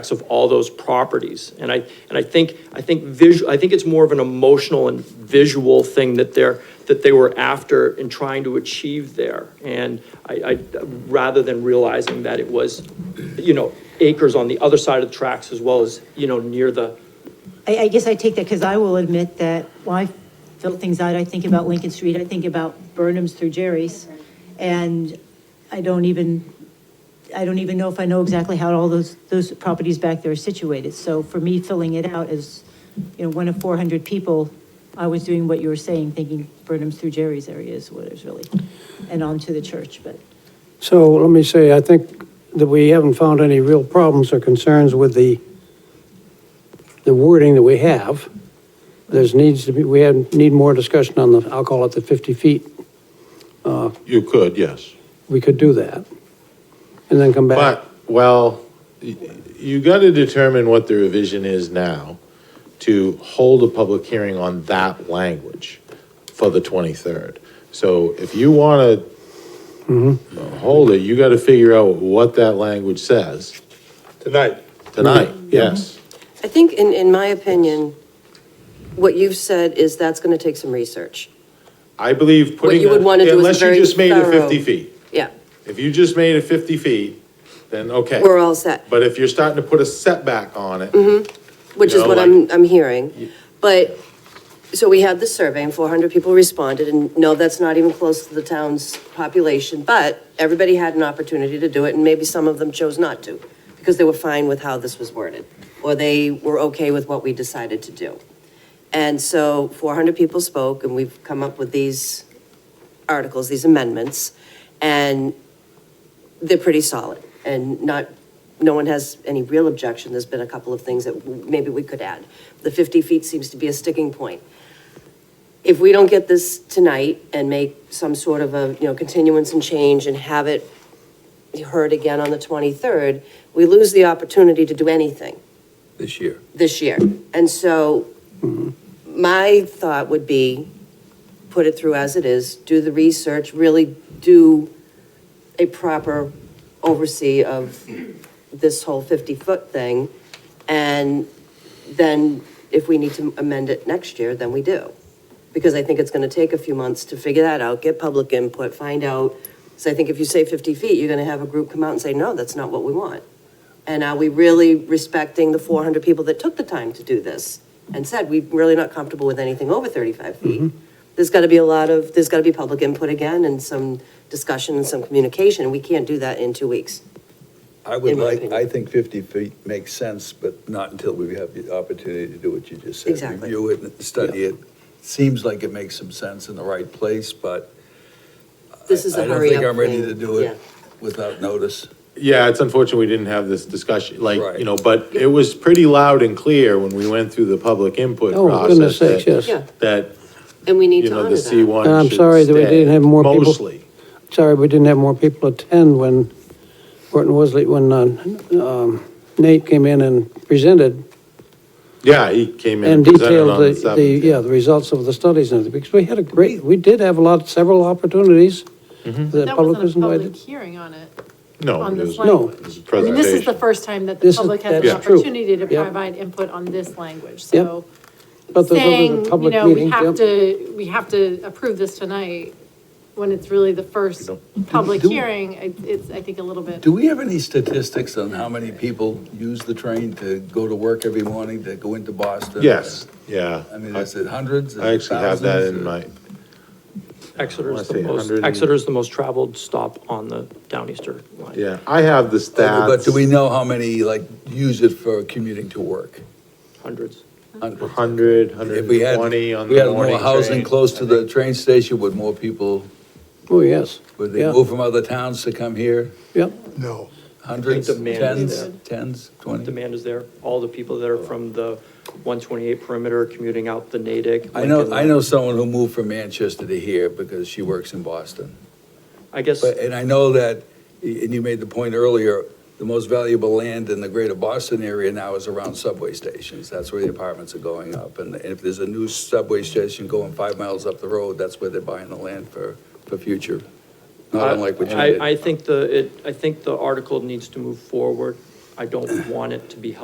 of all those properties. And I, and I think, I think visual, I think it's more of an emotional and visual thing that they're, that they were after and trying to achieve there. And I, I, rather than realizing that it was, you know, acres on the other side of the tracks as well as, you know, near the, I, I guess I take that because I will admit that when I fill things out, I think about Lincoln Street, I think about Burnham's through Jerry's. And I don't even, I don't even know if I know exactly how all those, those properties back there are situated. So for me, filling it out as, you know, one of four hundred people, I was doing what you were saying, thinking Burnham's through Jerry's area is what is really, and on to the church, but. So let me say, I think that we haven't found any real problems or concerns with the, the wording that we have. There's needs to be, we have, need more discussion on the, I'll call it the 50 feet. You could, yes. We could do that. And then come back. But, well, y- you got to determine what the revision is now to hold a public hearing on that language for the 23rd. So if you want to hold it, you got to figure out what that language says Tonight. tonight, Mm-hmm. Mm-hmm. yes. I think, in, in my opinion, what you've said is that's going to take some research. I believe putting. you would a- wanna do is Unless you very just made it thorough. 50 feet. Yeah, If you just made it 50 feet, then okay. we're all set, But if you're starting to put a setback on it, which is No, what like- I'm, I'm hearing. But, so we had the survey and four hundred people responded and no, that's not even close to the town's population, but everybody had an opportunity to do it and maybe some of them chose not to because they were fine with how this was worded or they were okay with what we decided to do. And so four hundred people spoke and we've come up with these articles, these amendments, and they're pretty solid and not, no one has any real objection. There's been a couple of things that w- maybe we could add. The 50 feet seems to be a sticking point. If we don't get this tonight and make some sort of a, you know, continuance and change and have it heard again on the 23rd, we lose the opportunity to do anything This year. this year. And so my thought would be, put it through as it is, do the research, really do a proper oversee of this whole 50-foot thing. And then if we need to amend it next year, then we do. Because I think it's going to take a few months to figure that out, get public input, find out. So I think if you say 50 feet, you're going to have a group come out and say, no, that's not what we want. And are we really respecting the four hundred people that took the time to do this and said, we're really not comfortable with anything over thirty-five feet? There's gotta be a lot of, there's gotta be public input again and some discussion and some communication. We can't do that in two weeks. I would In my like, opinion. I think 50 feet makes sense, but not until we have the opportunity to do what you just said. Exactly. Review it and study it. Seems like it makes some sense in the right place, but This is I- a I don't hurry up think I'm ready thing. to do it. Yeah. without notice. Yeah, it's unfortunate we didn't have this discussion, like, you Right. know, but it was pretty loud and clear when we went through the public input Oh, goodness process. sakes, yes. that- Yeah. That, And we need you to know, honor the C that. one And I'm sorry that we didn't have more people- Mostly. Sorry, we didn't have more people attend when Horton Wesley, when uh, um, Nate came in and presented Yeah, he came in and and presented detailed on the the, the, seventh. yeah, the results of the studies and everything, because we had a great, we did have a lot, several opportunities. The Mm-hmm. That public wasn't was a public invited. hearing on it. No, on it was, this language. it No, was a I mean, this is the presentation. first time that This the is- public has an that's true. opportunity to Yep. provide input on this language, Yep. so. but those Saying, other you public know, we meetings, have yeah. to, we have to approve this tonight, when it's really the first public Do- hearing, it- it's, I think, a little bit. Do we have any statistics on how many people use the train to go to work every morning, to go into Boston? Yes, yeah. I mean, is it hundreds? Is I it actually have that thousands? in my, Exeter's I the wanna say most, 100 and- Exeter's the most traveled stop on the Downeaster line. yeah, I have the stats. But do we know how many, like, use it for commuting to work? Hundreds. Hundreds. Hundred, hundred If we and had, twenty on we the had more morning housing train. close to the train station, would more people, Oh, yes. would they Yeah. move from other towns to come here? Yep, Hundreds, demand is tens, there. tens, The twenty? Demand is there. All the people that are from the 128 perimeter commuting out the Natick. I know, Lincoln. I know someone who moved from Manchester to here because she works in Boston. I guess, But, and I know that, and you made the point earlier, the most valuable land in the greater Boston area now is around subway stations. That's where the apartments are going up. And if there's a new subway station going five miles up the road, that's where they're buying the land for, for future. Not unlike what you I, I did. think the, it, I think the article needs to move forward. I- I don't want it to be held